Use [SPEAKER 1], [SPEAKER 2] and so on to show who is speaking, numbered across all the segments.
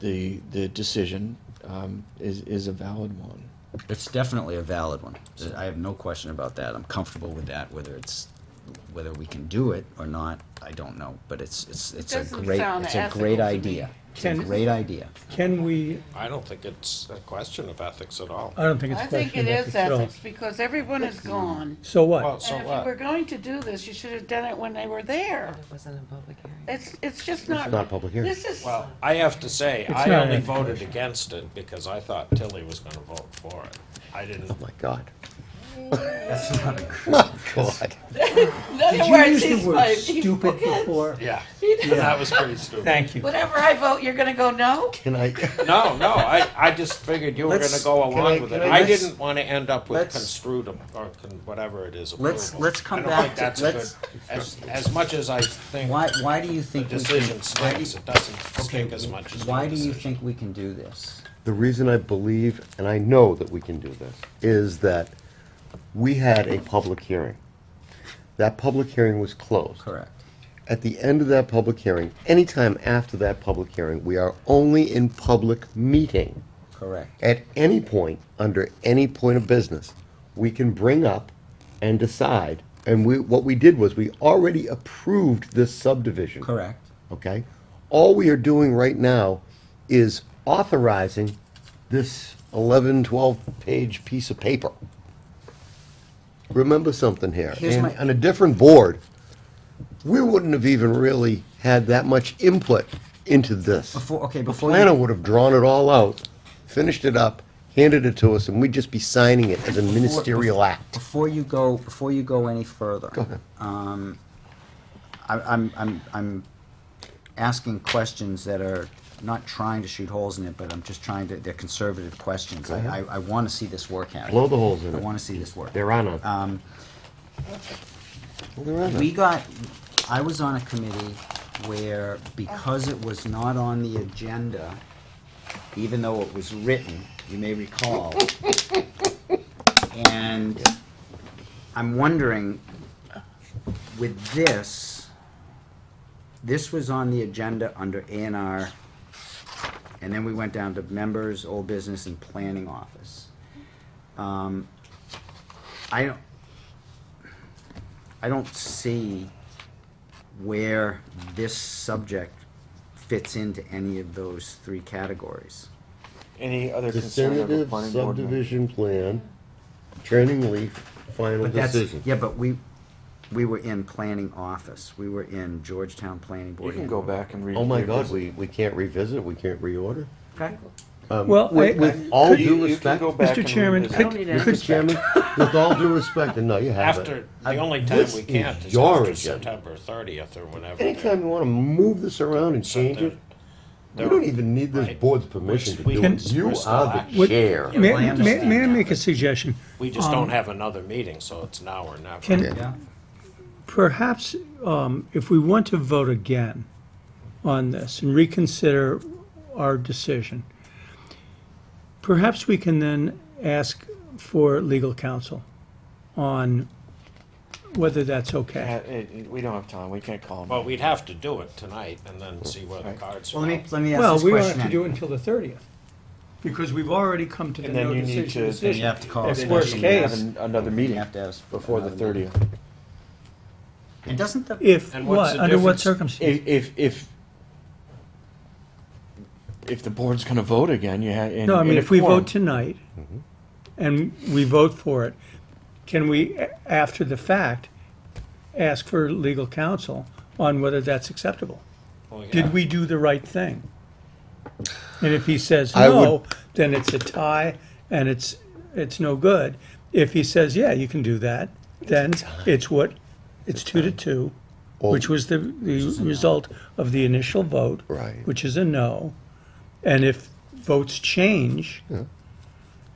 [SPEAKER 1] the, the decision um, is, is a valid one.
[SPEAKER 2] It's definitely a valid one. I have no question about that. I'm comfortable with that, whether it's, whether we can do it or not, I don't know, but it's, it's, it's a
[SPEAKER 3] doesn't
[SPEAKER 2] great,
[SPEAKER 3] sound
[SPEAKER 2] it's a
[SPEAKER 3] ethical
[SPEAKER 2] great
[SPEAKER 3] to me.
[SPEAKER 2] idea. It's a
[SPEAKER 4] Can-
[SPEAKER 2] great idea.
[SPEAKER 4] Can we,
[SPEAKER 5] I don't think it's a question of ethics at all.
[SPEAKER 2] Uh,
[SPEAKER 4] I don't think it's
[SPEAKER 3] I
[SPEAKER 4] a question.
[SPEAKER 3] think it
[SPEAKER 4] of
[SPEAKER 3] is
[SPEAKER 4] at all.
[SPEAKER 3] ethics, because everyone is gone.
[SPEAKER 4] So
[SPEAKER 5] Well,
[SPEAKER 4] what?
[SPEAKER 5] so
[SPEAKER 3] And if you were
[SPEAKER 5] what?
[SPEAKER 3] going to do this, you should have done it when they were there.
[SPEAKER 6] It wasn't a public hearing.
[SPEAKER 3] It's, it's just not.
[SPEAKER 7] not a public hearing.
[SPEAKER 3] This is,
[SPEAKER 5] Well, I have to say, I
[SPEAKER 4] not
[SPEAKER 5] only
[SPEAKER 4] an-
[SPEAKER 5] voted against it because I thought Tilly was gonna vote for it. I didn't,
[SPEAKER 7] Oh, my God.
[SPEAKER 2] That's not a
[SPEAKER 7] God.
[SPEAKER 3] in other words,
[SPEAKER 4] Did you use
[SPEAKER 3] he's
[SPEAKER 4] the word
[SPEAKER 3] my.
[SPEAKER 4] stupid before?
[SPEAKER 5] yeah, that was pretty stupid.
[SPEAKER 4] Thank you.
[SPEAKER 3] Whatever I vote, you're gonna go no?
[SPEAKER 7] Can I,
[SPEAKER 5] No, no, I, I just figured you were
[SPEAKER 2] Let's-
[SPEAKER 5] gonna go
[SPEAKER 7] can I-
[SPEAKER 5] along with it.
[SPEAKER 7] can I
[SPEAKER 5] I
[SPEAKER 7] just-
[SPEAKER 5] didn't wanna end up with
[SPEAKER 2] let's-
[SPEAKER 5] construed ab- or con- whatever it is approval.
[SPEAKER 2] Let's- let's come
[SPEAKER 5] I don't
[SPEAKER 2] back
[SPEAKER 5] think
[SPEAKER 2] to-
[SPEAKER 5] that's
[SPEAKER 2] let's-
[SPEAKER 5] good. As, as much as I think
[SPEAKER 2] Why, why do you
[SPEAKER 5] the
[SPEAKER 2] think we can?
[SPEAKER 5] decision
[SPEAKER 2] why do-
[SPEAKER 5] stinks, it doesn't
[SPEAKER 2] Okay,
[SPEAKER 5] stink as much as
[SPEAKER 2] why
[SPEAKER 5] the
[SPEAKER 2] do you
[SPEAKER 5] decision.
[SPEAKER 2] think we can do this?
[SPEAKER 7] The reason I believe, and I know that we can do this, is that we had a public hearing. That public hearing was closed.
[SPEAKER 2] Correct.
[SPEAKER 7] At the end of that public hearing, anytime after that public hearing, we are only in public meeting.
[SPEAKER 2] Correct.
[SPEAKER 7] At any point, under any point of business, we can bring up and decide. And we, what we did was, we already approved this subdivision.
[SPEAKER 2] Correct.
[SPEAKER 7] Okay? All we are doing right now is authorizing this 11, 12-page piece of paper. Remember something here.
[SPEAKER 2] Here's
[SPEAKER 7] in-
[SPEAKER 2] my-
[SPEAKER 7] On a different board, we wouldn't have even really had that much input into this.
[SPEAKER 2] Before, okay,
[SPEAKER 7] The
[SPEAKER 2] before you.
[SPEAKER 7] planner would have drawn it all out, finished it up, handed it to us, and we'd just be signing it as a ministerial act.
[SPEAKER 2] Before you go, before you go any further. um, I, I'm, I'm, I'm asking questions that are not trying to shoot holes in it, but I'm just trying to, they're conservative questions. I, I, I wanna see this work happen.
[SPEAKER 7] Blow the holes in
[SPEAKER 2] I
[SPEAKER 7] it.
[SPEAKER 2] wanna see this work.
[SPEAKER 7] There are none.
[SPEAKER 2] Um,
[SPEAKER 7] Well, there are none.
[SPEAKER 2] we got, I was on a committee where, because it was not on the agenda, even though it was written, you may recall. And I'm wondering, with this, this was on the agenda under A and R, and then we went down to members, old business, and planning office. Um, I don't, I don't see where this subject fits into any of those three categories.
[SPEAKER 8] Any other concern of the
[SPEAKER 7] Definitive
[SPEAKER 8] planning board? member?
[SPEAKER 7] subdivision plan, training leaf, final
[SPEAKER 2] But that's,
[SPEAKER 7] decision.
[SPEAKER 2] yeah, but we, we were in planning office, we were in Georgetown Planning
[SPEAKER 8] You
[SPEAKER 2] Board.
[SPEAKER 8] can go back and read.
[SPEAKER 7] Oh my God, we, we can't revisit, we can't reorder?
[SPEAKER 2] Okay.
[SPEAKER 7] Um,
[SPEAKER 4] Well, I-
[SPEAKER 7] With, with
[SPEAKER 4] I-
[SPEAKER 7] all
[SPEAKER 8] You- you
[SPEAKER 7] due
[SPEAKER 8] can
[SPEAKER 7] respect,
[SPEAKER 8] go back
[SPEAKER 4] Mr.
[SPEAKER 8] and
[SPEAKER 4] Chairman,
[SPEAKER 8] revisit.
[SPEAKER 4] could-
[SPEAKER 8] I don't need
[SPEAKER 2] any
[SPEAKER 7] Mr. Chairman, with all due respect, and no, you haven't.
[SPEAKER 5] After, the only time
[SPEAKER 7] this
[SPEAKER 5] we
[SPEAKER 7] is
[SPEAKER 5] can't is
[SPEAKER 7] your
[SPEAKER 5] after
[SPEAKER 7] agenda.
[SPEAKER 5] September thirtieth or whenever.
[SPEAKER 7] Anytime you wanna move this around and change it, we
[SPEAKER 5] they're-
[SPEAKER 7] don't even need this
[SPEAKER 5] right.
[SPEAKER 7] board's permission to
[SPEAKER 5] We-
[SPEAKER 7] do
[SPEAKER 5] we-
[SPEAKER 7] it. You
[SPEAKER 5] we're still
[SPEAKER 7] are
[SPEAKER 5] acting.
[SPEAKER 7] the
[SPEAKER 4] Would-
[SPEAKER 7] chair.
[SPEAKER 4] May,
[SPEAKER 2] I
[SPEAKER 4] may-
[SPEAKER 2] understand
[SPEAKER 4] may I
[SPEAKER 2] that.
[SPEAKER 4] make a suggestion?
[SPEAKER 5] We just don't have another meeting, so it's now or never.
[SPEAKER 4] Can-
[SPEAKER 2] Yeah,
[SPEAKER 4] Perhaps um, if we want to vote again on this and reconsider our decision, perhaps we can then ask for legal counsel on whether that's
[SPEAKER 8] Uh,
[SPEAKER 4] okay.
[SPEAKER 8] it- We don't have time, we can't call
[SPEAKER 5] Well,
[SPEAKER 8] them.
[SPEAKER 5] we'd have to do it tonight and then see where the cards fall.
[SPEAKER 2] well, let me, let me ask
[SPEAKER 4] Well,
[SPEAKER 2] this
[SPEAKER 4] we don't have
[SPEAKER 2] question
[SPEAKER 4] to do it
[SPEAKER 2] then.
[SPEAKER 4] until the 30th because we've already come to the
[SPEAKER 8] And then
[SPEAKER 4] no
[SPEAKER 8] you need to-
[SPEAKER 4] decision
[SPEAKER 8] then you
[SPEAKER 4] decision.
[SPEAKER 2] have to call a
[SPEAKER 4] That's
[SPEAKER 2] special
[SPEAKER 4] worst
[SPEAKER 2] meeting.
[SPEAKER 4] case.
[SPEAKER 8] Have an- Another
[SPEAKER 2] You
[SPEAKER 8] meeting
[SPEAKER 2] have to ask.
[SPEAKER 8] before the
[SPEAKER 2] another meeting.
[SPEAKER 8] thirtieth.
[SPEAKER 2] And doesn't the,
[SPEAKER 4] If,
[SPEAKER 5] And what's
[SPEAKER 4] what,
[SPEAKER 5] the
[SPEAKER 4] under what
[SPEAKER 5] difference?
[SPEAKER 4] circumstances?
[SPEAKER 8] If, if, if, if the board's gonna vote again, you have.
[SPEAKER 4] No, I mean, if we vote tonight
[SPEAKER 8] Mm-hmm.
[SPEAKER 4] and we vote for it, can we, a- after the fact, ask for legal counsel on whether that's acceptable?
[SPEAKER 5] Well, yeah.
[SPEAKER 4] Did we do the right thing? And if he says
[SPEAKER 7] I would-
[SPEAKER 4] no, then it's a tie and it's, it's no good. If he says, yeah, you can do that, then it's what, it's two to two, which was the, the result of the initial vote.
[SPEAKER 7] Right.
[SPEAKER 4] Which is a no. And if votes change,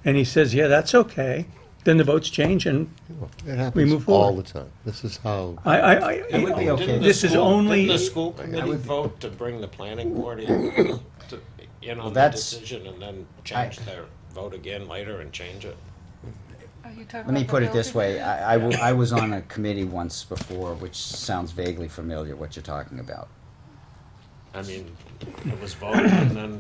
[SPEAKER 4] and he says, yeah, that's okay, then the votes change and
[SPEAKER 7] It
[SPEAKER 4] move
[SPEAKER 7] happens
[SPEAKER 4] forward.
[SPEAKER 7] all the time. This is how.
[SPEAKER 4] I, I, I.
[SPEAKER 2] It would be okay.
[SPEAKER 5] Didn't the
[SPEAKER 4] This is
[SPEAKER 5] school-
[SPEAKER 4] only.
[SPEAKER 5] Didn't the school committee vote to bring the planning board in, to, in on the
[SPEAKER 2] that's-
[SPEAKER 5] decision and then change their vote again later and change it?
[SPEAKER 3] Let
[SPEAKER 2] let me put it this way, I, I wa- I was on a committee once before, which sounds vaguely familiar, what you're talking about.
[SPEAKER 5] I mean, it was voted and then